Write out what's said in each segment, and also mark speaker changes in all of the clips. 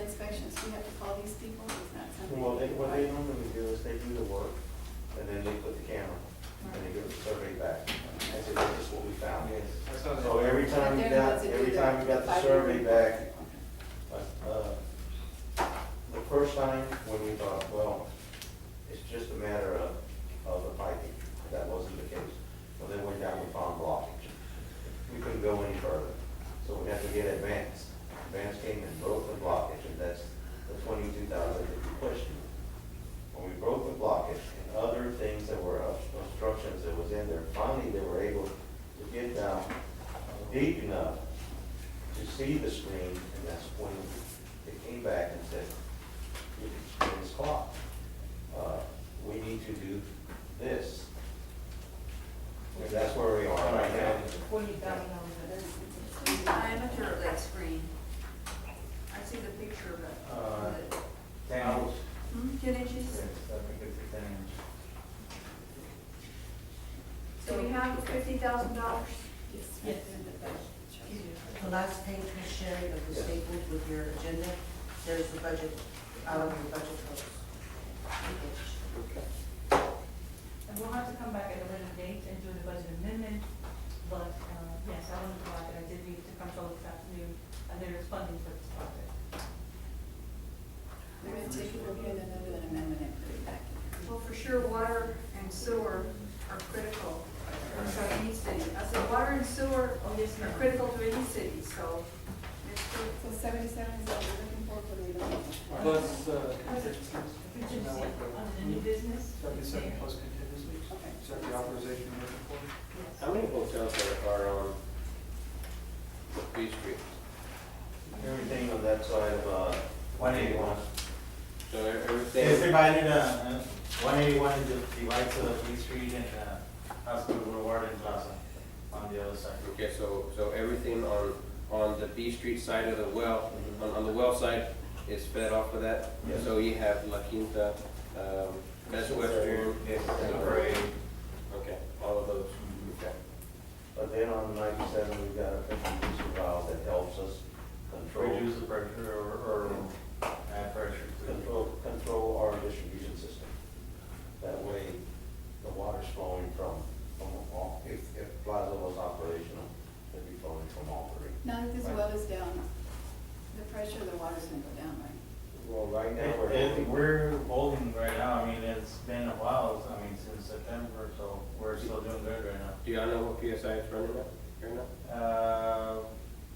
Speaker 1: you have to call these people, it's not something.
Speaker 2: Well, they, what they normally do is they do the work, and then they put the camera, and they give a survey back, and say, this is what we found.
Speaker 3: That sounds-
Speaker 2: So every time you
Speaker 1: They're the ones
Speaker 2: got,
Speaker 1: that do
Speaker 2: every
Speaker 1: the
Speaker 2: time you got the
Speaker 1: five-year
Speaker 2: survey back,
Speaker 1: report.
Speaker 2: uh, the first time when we thought, well, it's just a matter of, of the piping, that wasn't the case. Well, then went down, we found blockage. We couldn't go any further, so we had to get advanced. Advance came and broke the blockage, and that's the twenty-two thousand that we pushed. When we broke the blockage and other things that were uh, obstructions that was in there, finally they were able to get down deep enough to see the screen, and that's when they came back and said, it's clock. Uh, We need to do this. And that's where we are right now.
Speaker 4: Forty thousand dollars.
Speaker 5: Who's the diameter of that screen? I see the picture of it.
Speaker 3: Uh,
Speaker 5: Of it.
Speaker 3: Ten inch.
Speaker 5: Hmm, Ten inches?
Speaker 3: Yes, I think it's a ten inch.
Speaker 5: Do we have fifty thousand dollars?
Speaker 1: Yes.
Speaker 4: Yes. The last page, Ms. Sherry, of the
Speaker 2: Yes.
Speaker 4: staples with your agenda, there's the budget, out of your budget books.
Speaker 6: And we'll have to come back at a later date and do the budget amendment, but, uh, yes, I wanted to add that I did meet with the control this afternoon, and uh, there is funding for this project.
Speaker 1: We're gonna take a look at it, and then do an amendment and put it back. in.
Speaker 5: Well, for sure, water and sewer are critical for any city. I said, water and sewer
Speaker 6: Oh, yes,
Speaker 5: are
Speaker 6: ma'am.
Speaker 5: critical to any city, so it's good.
Speaker 1: So seventy-seven is what we're looking for for the redevelopment.
Speaker 3: Plus, uh,
Speaker 6: Contingency on the new business.
Speaker 3: seventy-seven plus contingency,
Speaker 1: Okay.
Speaker 3: is that the authorization you're looking for?
Speaker 6: Yes.
Speaker 7: How many hotels are, are on B Street?
Speaker 2: Everything on that side of, uh. One eighty-one.
Speaker 7: So e-
Speaker 8: It's
Speaker 7: everything,
Speaker 8: divided, uh, one eighty-one divides uh, Lee Street and, uh, Hospital Boulevard and Plaza on the other side.
Speaker 7: okay, so, so everything on, on the B Street side of the well,
Speaker 2: Mm-hmm.
Speaker 7: on, on the well side is fed off of that?
Speaker 2: Yes.
Speaker 7: So you have La Quinta, um, Best Western,
Speaker 2: Yes. Mm-hmm.
Speaker 7: and Parade, okay, all of those, okay.
Speaker 2: But then on ninety-seven, we got a fifty-two valve that helps us control,
Speaker 8: Reduce the pressure or, or add pressure to it.
Speaker 2: control, control our distribution system. That way, the water's flowing from, from all, if, if Plaza was operational, it'd be flowing from all three.
Speaker 1: Now that this well is down, the pressure of the water's gonna go down, right?
Speaker 2: Well, right now,
Speaker 8: It- it-
Speaker 2: we're,
Speaker 8: We're holding right now, I mean, it's been a while, I mean, since September, so we're still doing good right now.
Speaker 7: Do y'all know what PSI is running at, right now?
Speaker 8: Uh,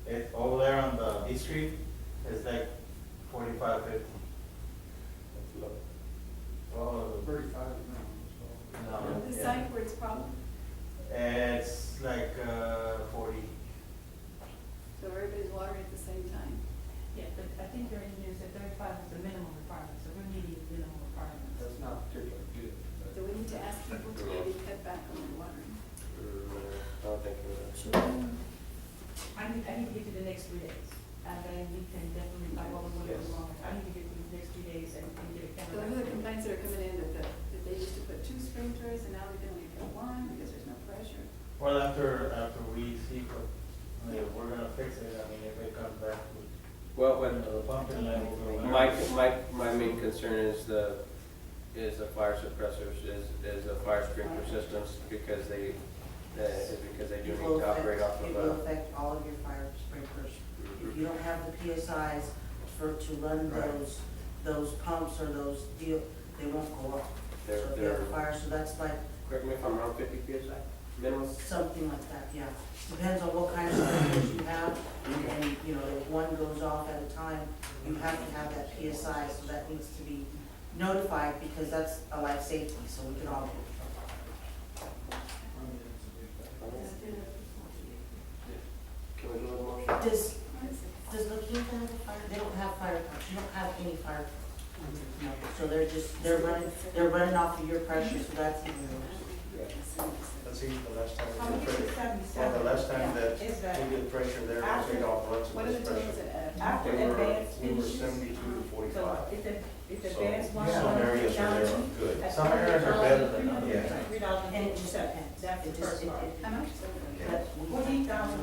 Speaker 8: it, over there on the B Street, it's like forty-five, fifty.
Speaker 7: That's low.
Speaker 8: Well,
Speaker 3: Thirty-five now,
Speaker 2: Uh-huh.
Speaker 8: no.
Speaker 1: The
Speaker 8: yeah.
Speaker 1: site where it's problem,
Speaker 8: It's like, uh, forty.
Speaker 1: so everybody's watering at the same time.
Speaker 6: Yeah, but I think your engineer said thirty-five is the minimum requirement, so we're meeting the minimum requirements.
Speaker 3: so that's not particularly good. but-
Speaker 1: So we need to ask people to maybe cut back on the watering.
Speaker 7: Mm, I don't think it is.
Speaker 6: I need, I need to get to the next three days, and then we can definitely, like, all the way
Speaker 2: Yes.
Speaker 6: along, I need to get through the next three days and and get a
Speaker 1: So
Speaker 6: camera.
Speaker 1: who are the complaints that are coming in that, the- that they used to put two sprinklers and now they can only put one because there's no pressure?
Speaker 8: Well, after, after we see what, I mean, if we're gonna fix it, I mean, if it comes back to,
Speaker 7: Well, when,
Speaker 8: you know, the pumping level. or
Speaker 7: My,
Speaker 8: whatever.
Speaker 7: my, my main concern is the, is the fire suppressors, is, is the fire sprinkler systems, because they, that, because they do
Speaker 4: It
Speaker 7: need
Speaker 4: will
Speaker 7: to operate off
Speaker 4: affect-
Speaker 7: of uh,
Speaker 4: It will
Speaker 7: a.
Speaker 4: affect all of your fire sprinklers. If you don't have the PSIs for, to run
Speaker 3: Right.
Speaker 4: those, those pumps or those deal, they won't go off. So
Speaker 7: They're,
Speaker 4: if you have
Speaker 7: they're,
Speaker 4: a fire, so that's like
Speaker 7: correct me if I'm wrong, fifty PSI, minimum?
Speaker 4: something like that, yeah. Depends on what kind of sprinklers you have, and, you know, if one goes off at a time, you have to have that PSI, so that needs to be notified, because that's a life safety, so we can all,
Speaker 7: Can we do another motion?
Speaker 4: does, does La Quinta have a fire, they don't have fire trucks, you don't have any fire trucks. No, so they're just, they're running, they're running off of your pressure, so that's even worse.
Speaker 2: let's see, the last time. we
Speaker 6: How
Speaker 2: did
Speaker 6: much is
Speaker 2: pressure- Well,
Speaker 6: seventy-seven?
Speaker 2: the last time that
Speaker 6: Is that
Speaker 2: we did pressure there, we paid off lots of
Speaker 1: What are the
Speaker 2: this
Speaker 1: totals
Speaker 2: pressure.
Speaker 1: at Adams?
Speaker 6: after
Speaker 2: They were-
Speaker 6: advanced
Speaker 2: We were
Speaker 6: finishes?
Speaker 2: seventy-two to
Speaker 6: So
Speaker 2: forty-five.
Speaker 6: it's a, it's
Speaker 2: So,
Speaker 6: advanced one
Speaker 2: Some areas are there are good.
Speaker 6: At
Speaker 8: Some areas are better than others.
Speaker 6: $3,337.
Speaker 4: And it just depends.
Speaker 6: That's the
Speaker 4: It just-
Speaker 6: first
Speaker 1: uh,
Speaker 4: it-
Speaker 6: part.
Speaker 4: it-
Speaker 1: How much?
Speaker 4: but we-
Speaker 6: Forty thousand